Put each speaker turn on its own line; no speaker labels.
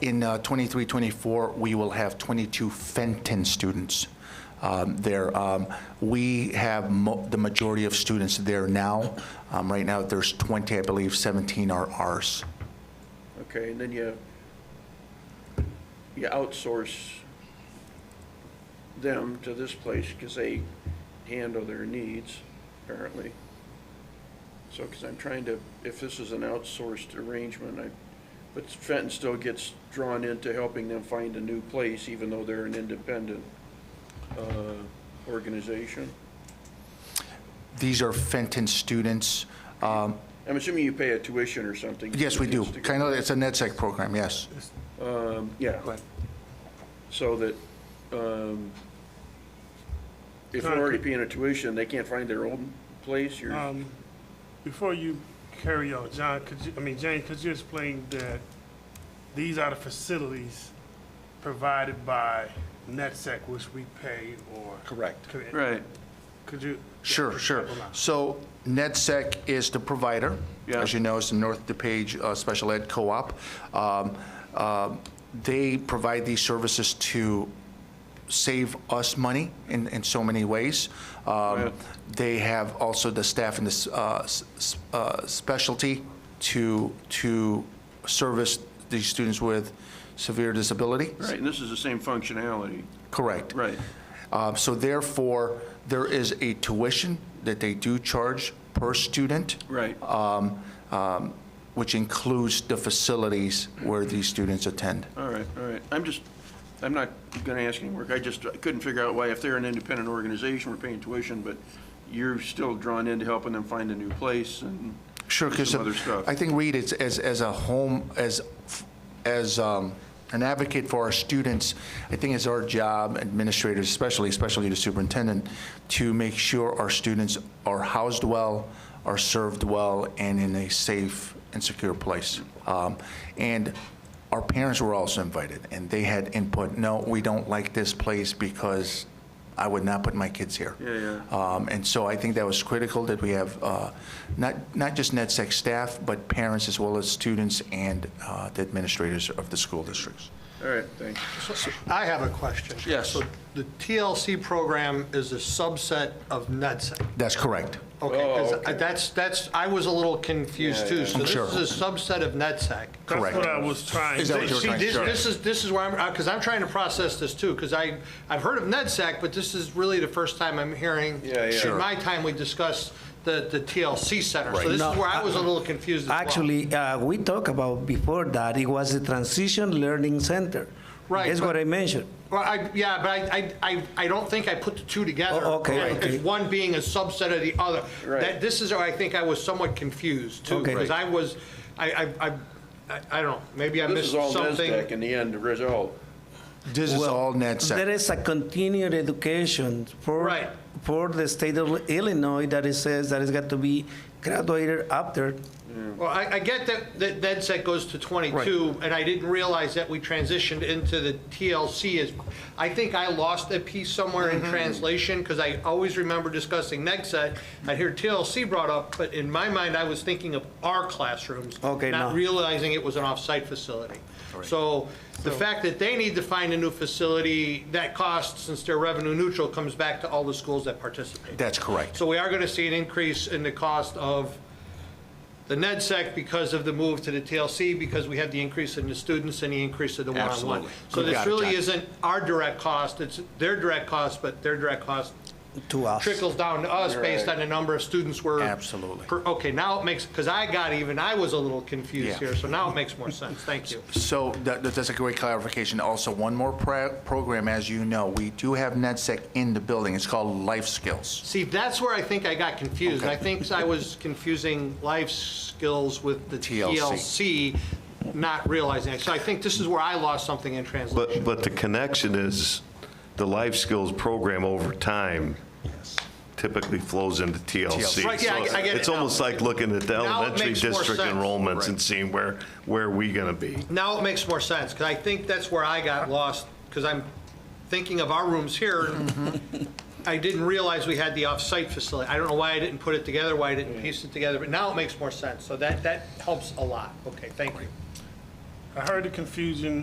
In uh, 23, 24, we will have 22 Fenton students um, there. Um, We have mo- the majority of students there now. Um, Right now, there's 20, I believe, 17 are ours.
Okay, and then you, you outsource them to this place because they handle their needs, apparently. So, because I'm trying to, if this is an outsourced arrangement, I, but Fenton still gets drawn into helping them find a new place, even though they're an independent, uh, organization.
These are Fenton students. Um,
I'm assuming you pay a tuition or something.
Yes, we do.
It's to-
Kind of, it's a E NetSec program, yes.
Um, yeah. So that, um, if they're already paying a tuition, they can't find their own place, you're,
Um, Before you carry on, John, could you, I mean, Jane, could you explain that these are the facilities provided by E NetSec, which we pay or?
Correct.
Could-
right,
Could you?
Sure, sure.
Hold on.
So NetSec is the provider.
Yeah.
As you know, it's the North DePage uh, Special Ed Co-op. Um, um, They provide these services to save us money in, in so many ways. Um,
Right.
They have also the staff and the s- uh, s- s- uh, specialty to, to service these students with severe disability.
right, and this is the same functionality,
Correct.
right,
Uh, So therefore, there is a tuition that they do charge per student,
right,
um, um, which includes the facilities where these students attend.
all right, all right. I'm just, I'm not gonna ask any work, I just couldn't figure out why, if they're an independent organization, we're paying tuition, but you're still drawn into helping them find a new place and
Sure, because
some other stuff.
I think, Reed, it's, as, as a home, as, as um, an advocate for our students, I think it's our job, administrators especially, especially the superintendent, to make sure our students are housed well, are served well, and in a safe and secure place. Um, And our parents were also invited, and they had input, no, we don't like this place because I would not put my kids here.
Yeah, yeah.
Um, And so I think that was critical that we have uh, not, not just NetSec staff, but parents as well as students and uh, the administrators of the school districts.
All right, thanks.
I have a question.
Yes.
So the TLC program is a subset of NetSec.
That's correct.
Okay,
Oh,
'cause
okay.
that's, that's, I was a little confused
Yeah,
too.
yeah.
So
I'm
this
sure.
is a subset of NetSec.
Correct.
That's what I was trying.
Is that what you were
See,
trying to
this,
say?
this is, this is where I'm, because I'm trying to process this too, because I, I've heard of NetSec, but this is really the first time I'm hearing.
Yeah, yeah. Sure.
In my time, we discussed the, the TLC center.
Right.
So this
No,
is where I was a
uh,
little confused as well.
Actually, uh, we talked about before that, it was the Transition Learning Center.
Right,
That's
but-
what I mentioned.
Well, I, yeah, but I, I- I, I don't think I put the two together.
Oh, okay,
As-
okay.
As one being a subset of the other.
Right.
That, this is, where I think I was somewhat confused too,
Okay.
because I was, I, I, I, I- I don't, know, maybe I
This
missed
is all NESDAQ
something.
in the end, the result.
This is all
There
NetSec.
is a continued education for.
Right.
For the state of Illinois that it says that it's got to be graduated after.
Well, I, I get that, that NetSec goes to twenty-two, and I didn't realize that we transitioned into the TLC is, I think I lost a piece somewhere in
Mm-hmm.
translation, because I always remember discussing NetSec. I hear TLC brought up, but in my mind, I was thinking of our classrooms.
Okay,
Not
no.
realizing it was an off-site facility. So the fact that they need to find a new facility, that cost, since they're revenue neutral, comes back to all the schools that participate.
That's correct.
So we are going to see an increase in the cost of the NEDSEC because of the move to the TLC, because we have the increase in the students and the increase of the one-on-one.
Absolutely.
So
You
this
got it,
really
John.
isn't our direct cost, it's their direct cost, but their direct cost
To us.
trickles down to us based
Right.
on the number of students we're.
Absolutely.
per- Okay, now it makes, because I got even, I was a little
Yeah.
confused here, so now it makes more sense, thank you.
So that, that- that's a great clarification. Also, one more pra- program, as you know, we do have NetSec in the building. It's called Life Skills.
See, that's where I think I got confused.
Okay.
I think I was confusing life skills with the
TLC.
TLC, not realizing it. So I think this is where I lost something in translation.
But, but the connection is the life skills program over time typically flows into TLC.
Right, yeah, I get- I get it
It's
now.
almost like looking at the
Now it
elementary
makes more
district
sense.
enrollments and seeing where, where are we going to be?
Now it makes more sense, because I think that's where I got lost, because I'm thinking of our rooms here. I didn't realize we had the off-site facility. I don't know why I didn't put it together, why I didn't piece it together, but now it makes more sense. So that, that helps a lot. Okay, thank you.
I heard the confusion